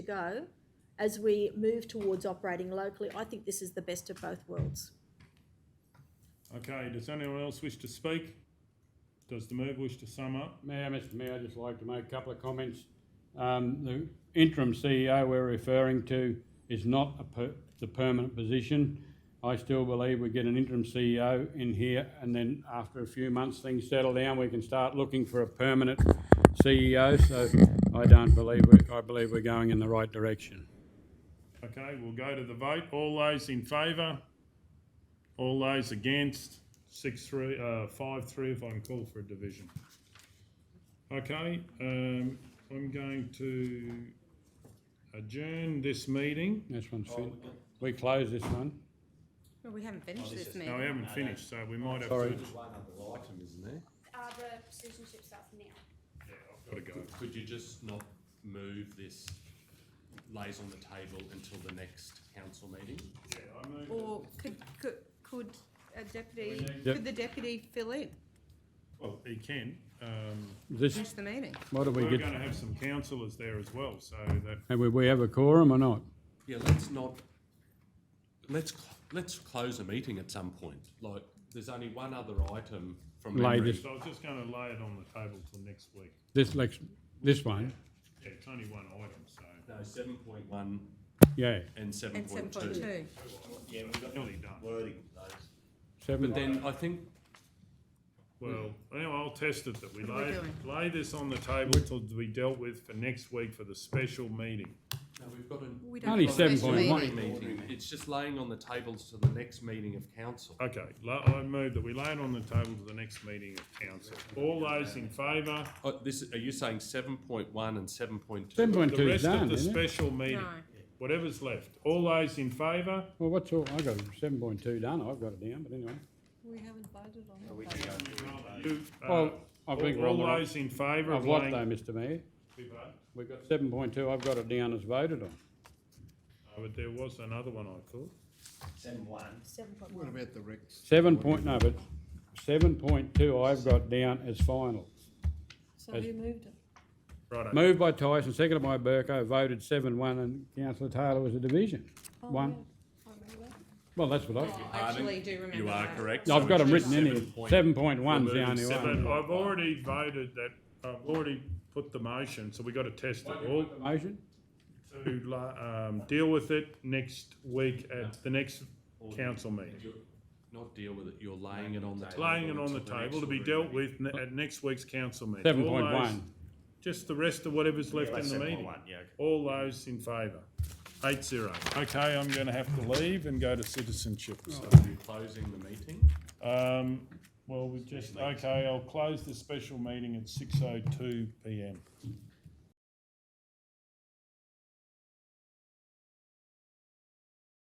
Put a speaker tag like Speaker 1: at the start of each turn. Speaker 1: go as we move towards operating locally. I think this is the best of both worlds.
Speaker 2: Okay, does anyone else wish to speak? Does the move wish to sum up?
Speaker 3: Mayor, Mr Mayor, I'd just like to make a couple of comments. Um, the interim CEO we're referring to is not a per, the permanent position. I still believe we get an interim CEO in here and then after a few months, things settle down, we can start looking for a permanent CEO. So I don't believe, we- I believe we're going in the right direction.
Speaker 2: Okay, we'll go to the vote. All those in favour? All those against? Six, three, uh, five, three, if I can call for a division. Okay, um, I'm going to adjourn this meeting.
Speaker 3: This one's fin, we close this one.
Speaker 4: Well, we haven't
Speaker 5: Oh,
Speaker 4: finished this,
Speaker 2: No, we
Speaker 4: man.
Speaker 2: haven't finished, so we might have to.
Speaker 3: Sorry.
Speaker 5: There's one other item, isn't there?
Speaker 6: Uh, the precision chip stuff now.
Speaker 2: Yeah, I've got to go.
Speaker 5: Could you just not move this, lays on the table until the next council meeting?
Speaker 2: Yeah, I move that-
Speaker 4: Or could, could, could a deputy,
Speaker 3: Yep.
Speaker 4: could the deputy fill in,
Speaker 2: Well, he can. Um,
Speaker 3: This,
Speaker 4: finish the meeting?
Speaker 3: what do we
Speaker 2: we're
Speaker 3: get?
Speaker 2: going to have some councillors there as well, so that,
Speaker 3: Have we- we have a quorum or not?
Speaker 5: Yeah, let's not, let's, cl- let's close a meeting at some point. Like, there's only one other item from
Speaker 3: Lay
Speaker 5: memory.
Speaker 3: this-
Speaker 2: so I was just going to lay it on the table till next week.
Speaker 3: This, lex- this one?
Speaker 2: Yeah, it's only one item, so
Speaker 5: No, seven point one
Speaker 3: Yeah,
Speaker 5: and seven
Speaker 4: And seven
Speaker 5: point
Speaker 4: point
Speaker 5: two.
Speaker 4: two.
Speaker 5: Yeah, we've got
Speaker 2: nearly done.
Speaker 5: wording of those.
Speaker 3: seven.
Speaker 5: But then I think
Speaker 2: Well, anyway, I'll test it that we
Speaker 4: What are we
Speaker 2: lay,
Speaker 4: doing?
Speaker 2: lay this on the table to be dealt with for next week for the special meeting.
Speaker 5: No, we've got an.
Speaker 4: We don't
Speaker 3: Only
Speaker 4: have a special
Speaker 3: 7.1.
Speaker 4: meeting.
Speaker 5: Meeting, it's just laying on the tables to the next meeting of council.
Speaker 2: Okay, la- I move that we lay it on the table to the next meeting of council. All those in favour,
Speaker 5: Oh, this, are you saying seven point one and seven point two?
Speaker 3: Seven point
Speaker 2: the
Speaker 3: two is
Speaker 2: rest of
Speaker 3: done,
Speaker 2: the
Speaker 3: isn't it?
Speaker 2: special meeting,
Speaker 4: No.
Speaker 2: whatever's left, all those in favour?
Speaker 3: Well, what's all, I got seven point two done, I've got it down, but anyway.
Speaker 4: We haven't voted on that.
Speaker 2: You, uh,
Speaker 3: Well, I think
Speaker 2: All
Speaker 3: we're on the
Speaker 2: all
Speaker 3: right.
Speaker 2: those in favour
Speaker 3: I've
Speaker 2: of
Speaker 3: what though,
Speaker 2: laying?
Speaker 3: Mr Mayor?
Speaker 2: We vote?
Speaker 3: We've got seven point two, I've got it down as voted on.
Speaker 2: Oh, But there was another one I thought.
Speaker 1: Seven point
Speaker 7: What about the Rex?
Speaker 3: Seven point, no, but seven point two I've got down as final.
Speaker 4: So
Speaker 3: who
Speaker 4: moved it?
Speaker 2: Righto,
Speaker 3: Moved by Tyson, seconded by Burko, voted seven one, and councillor Taylor was a division. One. Well, that's what I,
Speaker 4: I actually do remember
Speaker 5: You are
Speaker 4: that.
Speaker 5: correct.
Speaker 3: I've got
Speaker 5: So
Speaker 3: them
Speaker 5: it's
Speaker 3: written in here,
Speaker 5: 7.1.
Speaker 3: seven point one's the
Speaker 5: We're
Speaker 3: only
Speaker 2: but
Speaker 5: moving
Speaker 3: one.
Speaker 2: I've already voted that, I've already put the motion, so we got to test it. All,
Speaker 3: Motion?
Speaker 2: to la- um, deal with it next week at the next council meeting.
Speaker 5: You're Not deal with it, you're laying it on the table.
Speaker 2: Laying it on the
Speaker 5: until
Speaker 2: table to
Speaker 5: next
Speaker 2: be
Speaker 5: ordinary
Speaker 2: dealt with ne- at next week's council meeting.
Speaker 3: Seven
Speaker 2: All
Speaker 3: point
Speaker 2: those-
Speaker 3: one.
Speaker 2: Just the rest of whatever's left in the meeting. All those in favour? Eight zero. Okay, I'm gonna have to leave and go to citizenship. so.
Speaker 5: meeting. You're Closing the meeting.
Speaker 2: Um, well, we just, okay, I'll close the special meeting at six oh two PM.